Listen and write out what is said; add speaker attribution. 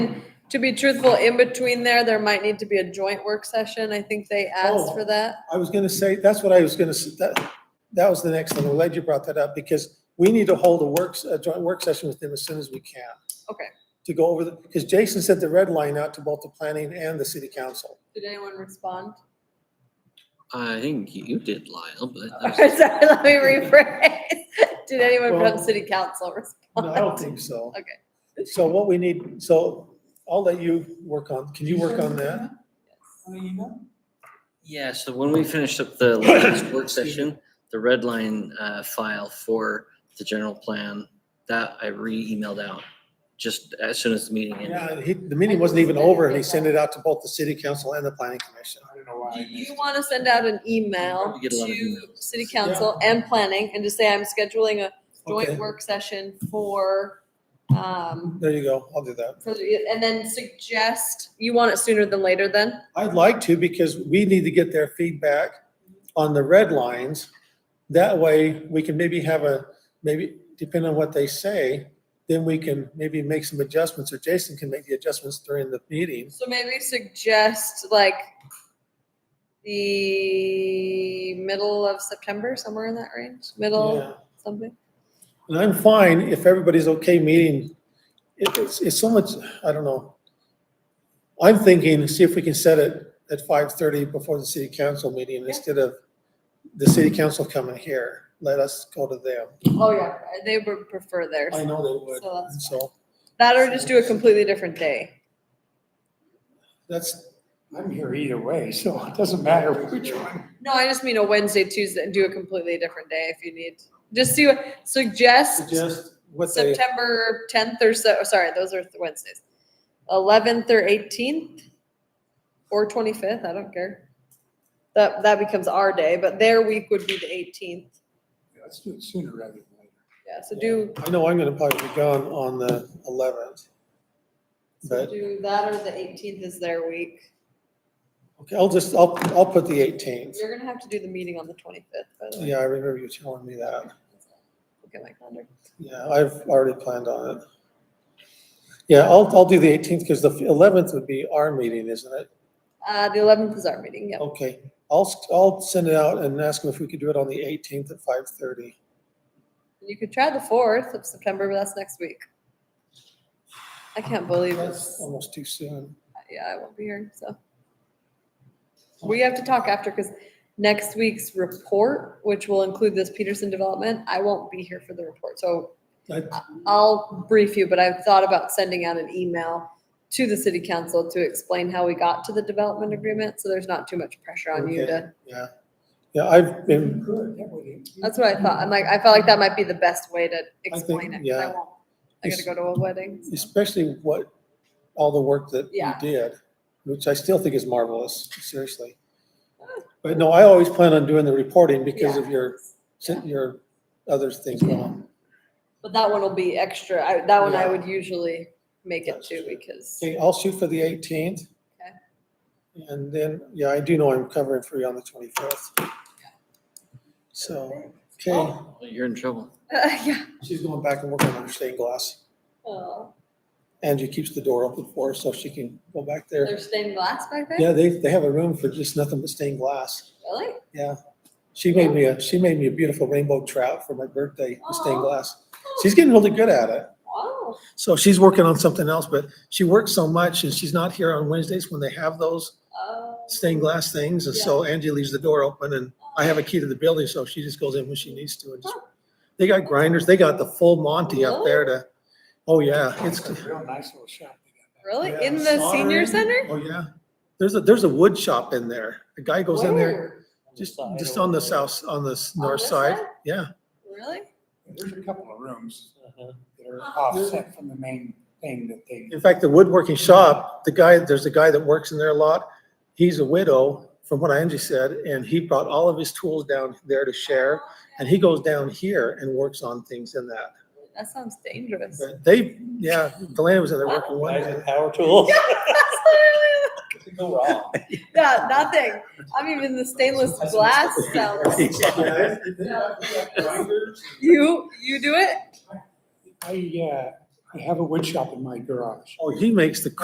Speaker 1: To be truthful, in between there, there might need to be a joint work session. I think they asked
Speaker 2: Oh.
Speaker 1: for that.
Speaker 2: I was gonna say, that's what I was gonna, s- that, that was the next thing. I'm glad you brought that up because we need to hold a works, a joint work session with them as soon as we can.
Speaker 1: Okay.
Speaker 2: To go over the, because Jason sent the red line out to both the planning and the city council.
Speaker 1: Did anyone respond?
Speaker 3: I think you did, Lyle, but that
Speaker 1: Sorry,
Speaker 3: was-
Speaker 1: let me rephrase. Did anyone from
Speaker 2: Well,
Speaker 1: city council respond?
Speaker 2: No, I don't think so.
Speaker 1: Okay.
Speaker 2: So what we need, so I'll let you work on, can you work on that?
Speaker 3: yeah, so when we finished up the last work session, the red line uh, file for the general plan, that I re-emailed out just as soon as the meeting ended.
Speaker 2: Yeah, he, the meeting wasn't even over and he sent it out to both the city council and the planning commission.
Speaker 4: I don't know why.
Speaker 1: Do
Speaker 4: I missed
Speaker 1: you
Speaker 4: it.
Speaker 1: want to send out an email
Speaker 3: We get a lot of
Speaker 1: to
Speaker 3: emails.
Speaker 1: city council and planning and just say, I'm scheduling a
Speaker 2: Okay.
Speaker 1: joint work session for, um,
Speaker 2: There you go. I'll do that.
Speaker 1: for the- and then suggest, you want it sooner than later then?
Speaker 2: I'd like to because we need to get their feedback on the red lines. That way, we can maybe have a, maybe, depending on what they say, then we can maybe make some adjustments or Jason can make the adjustments during the meetings.
Speaker 1: So maybe suggest like the middle of September, somewhere in that range, middle
Speaker 2: Yeah.
Speaker 1: something?
Speaker 2: And I'm fine if everybody's okay meeting. It- It's, it's so much, I don't know. I'm thinking, see if we can set it at five thirty before the city council meeting instead of the city council coming here. Let us go to them.
Speaker 1: Oh, yeah. They would prefer theirs.
Speaker 2: I know they would.
Speaker 1: So that's
Speaker 2: And So
Speaker 1: That or just do a completely different day.
Speaker 2: that's,
Speaker 4: I'm here either way, so it doesn't matter which one.
Speaker 1: No, I just mean a Wednesday, Tuesday, and do a completely different day if you need. Just see what, suggest
Speaker 2: suggest what they,
Speaker 1: September tenth or so, oh, sorry, those are Wednesdays. Eleventh or eighteenth or twenty-fifth, I don't care. That, that becomes our day, but their week would be the eighteenth.
Speaker 4: Let's do it sooner rather than later.
Speaker 1: Yeah, so do,
Speaker 2: I know I'm gonna probably be gone on the eleventh.
Speaker 1: so
Speaker 2: But,
Speaker 1: do that or the eighteenth is their week.
Speaker 2: okay, I'll just, I'll, I'll put the eighteenth.
Speaker 1: You're gonna have to do the meeting on the twenty-fifth, by the way.
Speaker 2: Yeah, I remember you telling me that.
Speaker 1: Look at my calendar.
Speaker 2: Yeah, I've already planned on it. Yeah, I'll, I'll do the eighteenth because the eleventh would be our meeting, isn't it?
Speaker 1: Uh, the eleventh is our meeting, yeah.
Speaker 2: Okay, I'll, s- I'll send it out and ask them if we could do it on the eighteenth at five thirty.
Speaker 1: You could try the fourth of September, but that's next week. I can't believe
Speaker 2: That's
Speaker 1: it's,
Speaker 2: almost too soon.
Speaker 1: yeah, I won't be here, so. We have to talk after, because next week's report, which will include this Peterson development, I won't be here for the report, so
Speaker 2: I-
Speaker 1: I'll brief you, but I've thought about sending out an email to the city council to explain how we got to the development agreement, so there's not too much pressure on you to.
Speaker 2: Yeah, yeah, I've been,
Speaker 4: Good, that would.
Speaker 1: That's what I thought, I'm like, I felt like that might be the best way to explain it, 'cause I
Speaker 2: yeah.
Speaker 1: won't, I gotta go to a wedding. so.
Speaker 2: especially what, all the work that you
Speaker 1: Yeah.
Speaker 2: did, which I still think is marvelous, seriously. But no, I always plan on doing the reporting because of your, your other things going on.
Speaker 1: But that one will be extra. I, that one I
Speaker 2: Yeah.
Speaker 1: would usually make it
Speaker 2: That's
Speaker 1: to
Speaker 2: true.
Speaker 1: because,
Speaker 2: Okay, I'll shoot for the eighteenth. And then, yeah, I do know I'm covering for you on the twenty-fifth. So, okay,
Speaker 3: You're in trouble.
Speaker 1: yeah.
Speaker 2: she's going back and working on her stained glass.
Speaker 1: Oh,
Speaker 2: Angie keeps the door open for her so she can go back there.
Speaker 1: There's stained glass back there?
Speaker 2: Yeah, they, they have a room for just nothing but stained glass.
Speaker 1: Really?
Speaker 2: Yeah. She made me a, she made me a beautiful rainbow trout for my birthday, with stained
Speaker 1: Aw.
Speaker 2: glass. She's getting really good at it.
Speaker 1: Oh, Wow.
Speaker 2: So she's working on something else, but she works so much and she's not here on Wednesdays when they have those.
Speaker 1: Oh.
Speaker 2: stained glass things, and so Angie leaves the door open, and I have a key to the building, so she just goes in when she needs to, and just, they got grinders, they got the full Monty up there to, oh, yeah, it's,
Speaker 4: It's a real nice little shop. they got back
Speaker 1: Really?
Speaker 2: Yeah,
Speaker 1: In the senior
Speaker 2: soldering.
Speaker 1: center?
Speaker 2: oh, yeah. There's a, there's a wood shop in there, a guy goes in there,
Speaker 1: Where?
Speaker 2: just, just on the south, on the s-
Speaker 1: On
Speaker 2: north
Speaker 1: this
Speaker 2: side,
Speaker 1: side?
Speaker 2: yeah,
Speaker 1: Really?
Speaker 4: there. There's a couple of rooms that are offset from the main thing that they.
Speaker 2: in fact, the woodworking shop, the guy, there's a guy that works in there a lot, he's a widow, from what Angie said, and he brought all of his tools down there to share,
Speaker 1: Oh,
Speaker 2: and he goes down here and works on things in that.
Speaker 1: That sounds dangerous.
Speaker 2: But They, yeah, Delaney was in there working one
Speaker 5: Guys
Speaker 2: day.
Speaker 5: with power tools.
Speaker 1: That's literally-
Speaker 5: Go wrong.
Speaker 1: Yeah, nothing. I'm even the stainless glass sounds. You, you do it?
Speaker 4: I, uh, I have a wood shop in my garage.
Speaker 2: Oh, he makes the